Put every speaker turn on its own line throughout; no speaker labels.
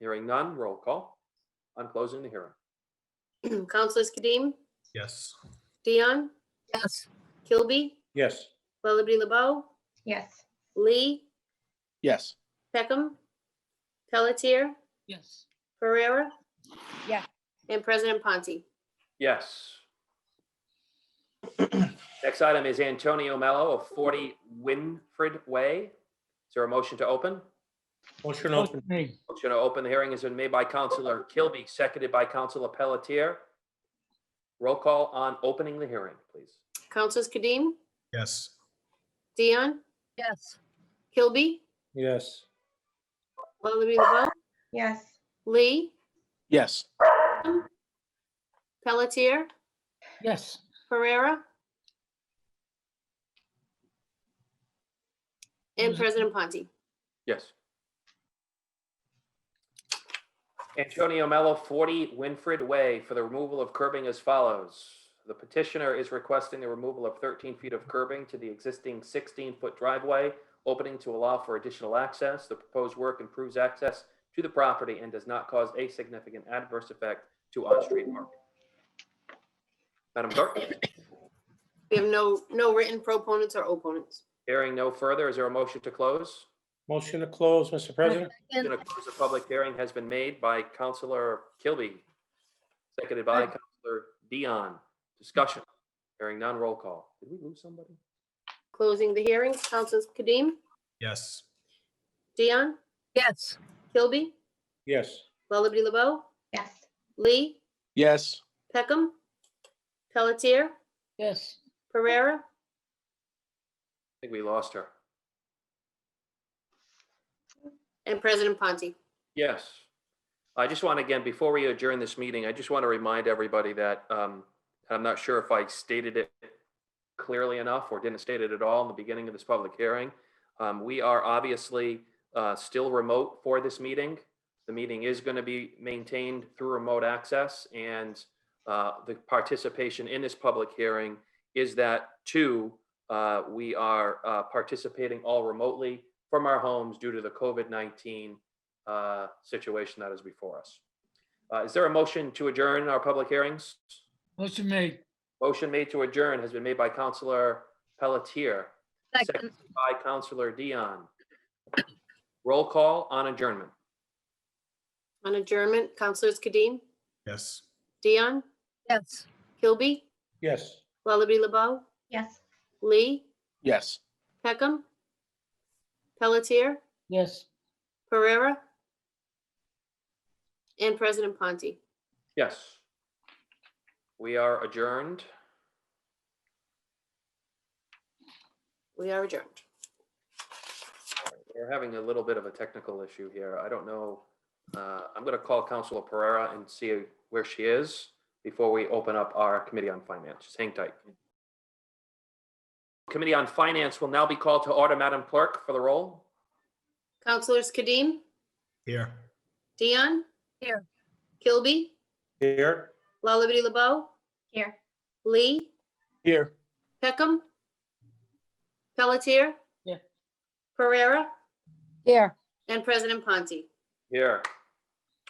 Hearing none, roll call. I'm closing the hearing.
Councilors Kadim,
Yes.
Dion,
Yes.
Kilby,
Yes.
Lullaby LeBeau,
Yes.
Lee,
Yes.
Peckham, Pelletier,
Yes.
Pereira.
Yeah.
And President Ponti.
Yes. Next item is Antonio Mello of 40 Winfred Way. Is there a motion to open?
Motion open.
Motion to open the hearing has been made by Counselor Kilby, seconded by Counselor Pelletier. Roll call on opening the hearing, please.
Councilors Kadim,
Yes.
Dion,
Yes.
Kilby,
Yes.
Lullaby LeBeau,
Yes.
Lee,
Yes.
Pelletier,
Yes.
Pereira. And
Mhm.
President Ponti.
Yes. Antonio Mello, 40 Winfred Way, for the removal of curbing as follows. The petitioner is requesting the removal of 13 feet of curbing to the existing 16-foot driveway, opening to allow for additional access. The proposed work improves access to the property and does not cause a significant adverse effect to on-street parking. Madam Clerk,
We have no, no written proponents or opponents.
hearing no further, is there a motion to close?
Motion to close, Mr. President?
Motion to close the public hearing has been made by Counselor Kilby, seconded by Counselor Dion. Discussion. Hearing none, roll call. Did we lose somebody?
Closing the hearing, Councilors Kadim,
Yes.
Dion,
Yes.
Kilby,
Yes.
Lullaby LeBeau,
Yes.
Lee,
Yes.
Peckham, Pelletier,
Yes.
Pereira,
I think we lost her.
and President Ponti.
Yes. I just want to, again, before we adjourn this meeting, I just want to remind everybody that, um, I'm not sure if I stated it clearly enough or didn't state it at all in the beginning of this public hearing. Um, we are obviously, uh, still remote for this meeting. The meeting is going to be maintained through remote access and, uh, the participation in this public hearing is that two, uh, we are, uh, participating all remotely from our homes due to the COVID-19 uh, situation that is before us. Uh, Is there a motion to adjourn our public hearings?
Motion made.
Motion made to adjourn has been made by Counselor Pelletier,
Second.
seconded by Counselor Dion. Roll call on adjournment.
On adjournment, Councilors Kadim,
Yes.
Dion,
Yes.
Kilby,
Yes.
Lullaby LeBeau,
Yes.
Lee,
Yes.
Peckham, Pelletier,
Yes.
Pereira, and President Ponti.
Yes. We are adjourned.
We are adjourned.
We're having a little bit of a technical issue here. I don't know. uh, I'm going to call Counselor Pereira and see where she is before we open up our Committee on Finance. Just hang tight. Committee on Finance will now be called to order. Madam Clerk, for the roll.
Councilors Kadim,
Here.
Dion.
Here.
Kilby,
Here.
Lullaby LeBeau,
Here.
Lee,
Here.
Peckham, Pelletier.
Yeah.
Pereira
Here.
and President Ponti.
Here.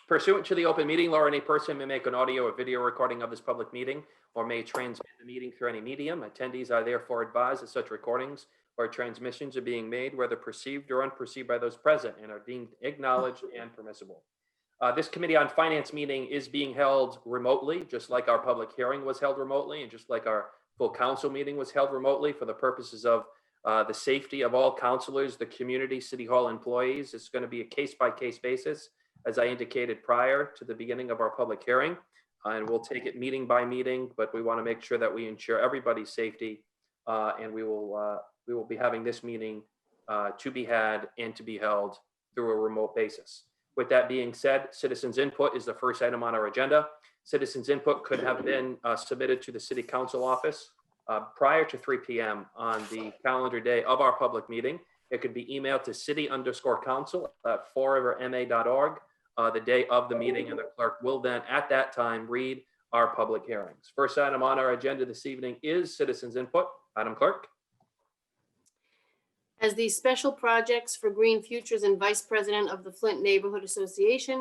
Pursuant to the open meeting law, any person may make an audio or video recording of this public meeting or may transmit the meeting through any medium. Attendees are therefore advised that such recordings or transmissions are being made, whether perceived or unperceived by those present, and are deemed acknowledged and permissible. Uh, This Committee on Finance meeting is being held remotely, just like our public hearing was held remotely, and just like our full council meeting was held remotely for the purposes of uh, the safety of all counselors, the community, city hall employees. It's going to be a case by case basis, as I indicated prior to the beginning of our public hearing. Uh, And we'll take it meeting by meeting, but we want to make sure that we ensure everybody's safety. uh, And we will, uh, we will be having this meeting uh, to be had and to be held through a remote basis. With that being said, citizens input is the first item on our agenda. Citizens input could have been uh, submitted to the city council office uh, prior to 3 PM on the calendar day of our public meeting. It could be emailed to city underscore council at foreverma.org uh, the day of the meeting, and the clerk will then, at that time, read our public hearings. First item on our agenda this evening is citizens input. Madam Clerk?
As the Special Projects for Green Futures and Vice President of the Flint Neighborhood Association,